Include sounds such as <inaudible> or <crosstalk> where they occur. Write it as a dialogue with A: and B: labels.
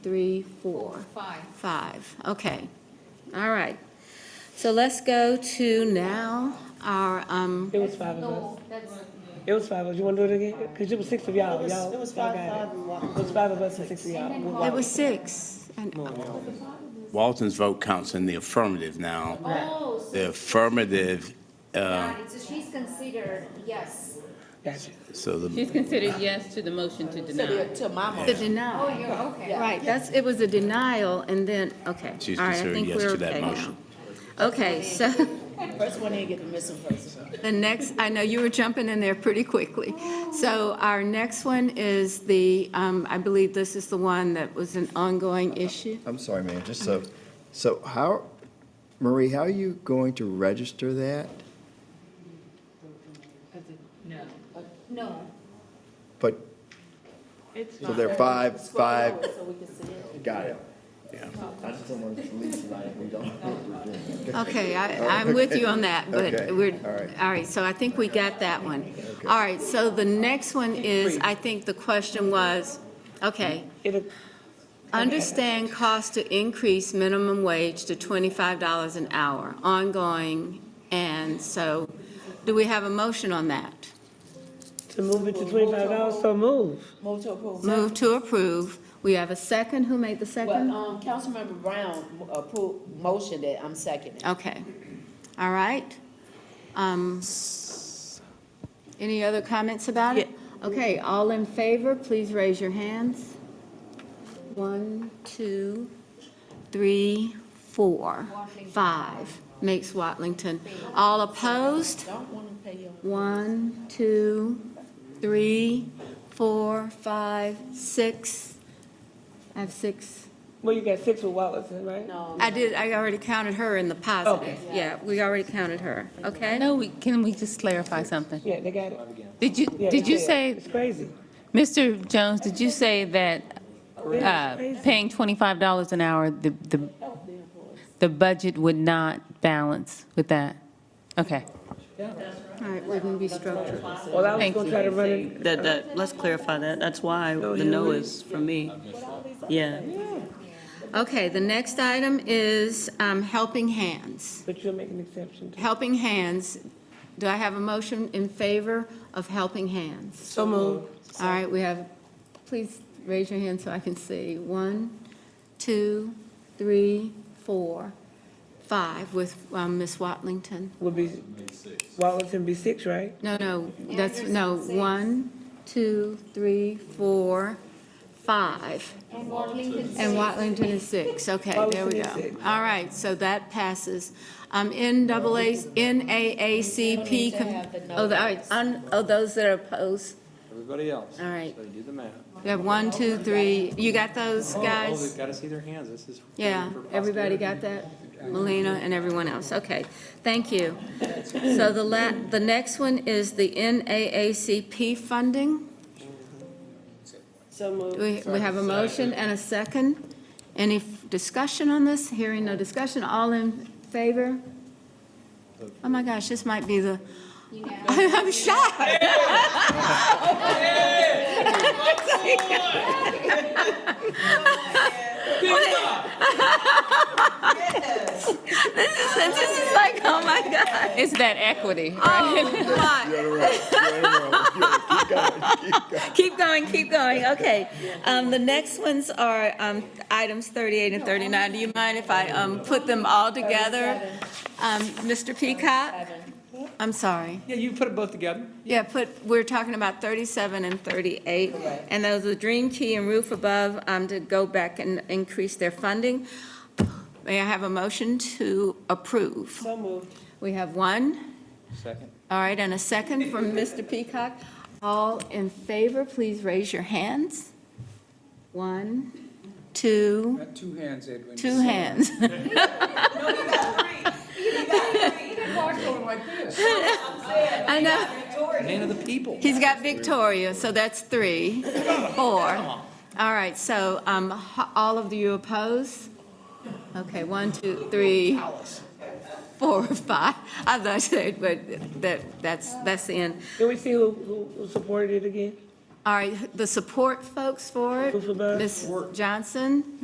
A: three, four,
B: Five.
A: five. Okay, all right. So let's go to now our, um,
C: It was five of us.
B: No, Oh, that's,
C: It was five of us. You want to do it again? Because it was six of y'all.
D: It was-
C: y'all
D: it was
C: y'all
D: five-
C: got
D: five and one.
C: It was five of us and six of y'all. One
A: it
C: walk.
A: was six. And
E: Walton's vote counts in the affirmative now.
B: oh, so
E: The affirmative, uh,
B: got it. so she's considered, yes.
C: Gotcha.
E: so the,
F: She's considered yes to the motion to deny.
D: To my
A: The
D: motion.
B: Oh,
A: denial,
B: you're okay.
A: right, that's, it was a denial, and then, okay.
E: She's
A: all right, I
E: considering
A: think
E: yes
A: we're
E: to that
A: okay now.
E: motion.
A: Okay, so <laughs>
D: First one in, get the missing person.
A: the next, I know you were jumping in there pretty quickly. So our next one is the, um, I believe this is the one that was an ongoing issue.
G: I'm sorry, ma'am, just so, so how, Marie, how are you going to register that?
B: No,
G: But, so there are five, five. Got it.
E: Yeah.
G: I just don't want to leave tonight, we don't know what we're doing.
A: Okay, I, I'm with you on that, but
G: Okay,
A: we're,
G: all right.
A: all right, so I think we got that one. All right, so the next one is, I think the question was,
G: Hmm?
A: okay,
C: It'll,
A: understand cost to increase minimum wage to twenty-five dollars an hour, ongoing, and so, do we have a motion on that?
C: to move it to twenty-five dollars, so move.
D: Move to approve.
A: Move to approve. We have a second. Who made the
D: Well,
A: second?
D: um, Councilmember Brown uh, approved motion that I'm seconding.
A: Okay, all right. Um, Any other comments about it? Okay, all in favor, please raise your hands. One, two, three, four, five. Makes Watlington. All opposed?
D: Don't want to pay your.
A: One, two, three, four, five, six. I have six.
C: Well, you got six with Wallace, right?
D: No.
A: I did, I already counted her in the positive. Yeah, we already counted her,
F: I
A: okay?
F: know, we, can we just clarify something?
C: Yeah, they got it.
F: Did you,
C: Yeah,
F: did
C: they
F: you
C: got it.
F: say,
C: It's crazy.
F: Mr. Jones, did you say that uh, paying twenty-five dollars an hour, the, the, the budget would not balance with that? Okay.
A: All right, wouldn't be structured.
C: Well, I was
F: Thank
C: gonna
F: you.
C: try to run it. Oh,
H: That, that, let's clarify that. That's why the no is from me. Yeah.
A: Okay, the next item is um, Helping Hands.
C: But you'll make an exception.
A: Helping Hands, do I have a motion in favor of Helping Hands?
C: So move.
A: All right, we have, please raise your hand so I can see. One, two, three, four, five, with um, Ms. Watlington.
C: Would be, Wallace and be six, right?
A: No, no, that's, no, one, two, three, four, five.
B: and Watlington
A: And Watlington is six, okay, there we
C: Watlington is
A: go.
C: six.
A: All right, so that passes. Um, NAA, NAACP, com- oh, the- all right, un- oh, those that are opposed,
I: Everybody else.
A: all right.
I: So you do the math.
A: We have one, two, three, you got those,
I: Oh,
A: guys?
I: they've got to see their hands. This is.
A: Yeah,
I: for posterity.
A: everybody got that? Melina and everyone else, okay, thank you. So the la, the next one is the NAACP funding.
D: So move.
A: We, we have a motion and a second. Any f- discussion on this? Hearing no discussion, all in favor? Oh my gosh, this might be the, <laughs> I'm shocked. This is, this is like, oh my God.
F: It's that equity.
A: Oh my. Keep going, keep going, okay. Um, the next ones are, um, items thirty-eight and thirty-nine. Do you mind if I, um, put them all together? Um, Mr. Peacock? I'm sorry.
I: Yeah, you put it both together.
A: Yeah, put, we're talking about 37 and 38, and those are Dream Key and Roof Above um, to go back and increase their funding. May I have a motion to approve? So moved. We have one,
I: Second.
A: all right, and a second from Mr. Peacock. All in favor, please raise your hands. One, two,
I: Two hands, Edwin.
A: two hands. <laughs> I know.
I: Man of the people.
A: He's got Victoria, so that's three, four. All right, so um, h- all of you oppose? Okay, one, two, three, four, five. I thought I said, but that, that's, that's the end.
C: Can we see who, who who supported it again? All right, the support folks for it,
A: Move for back.
C: Ms. Johnson,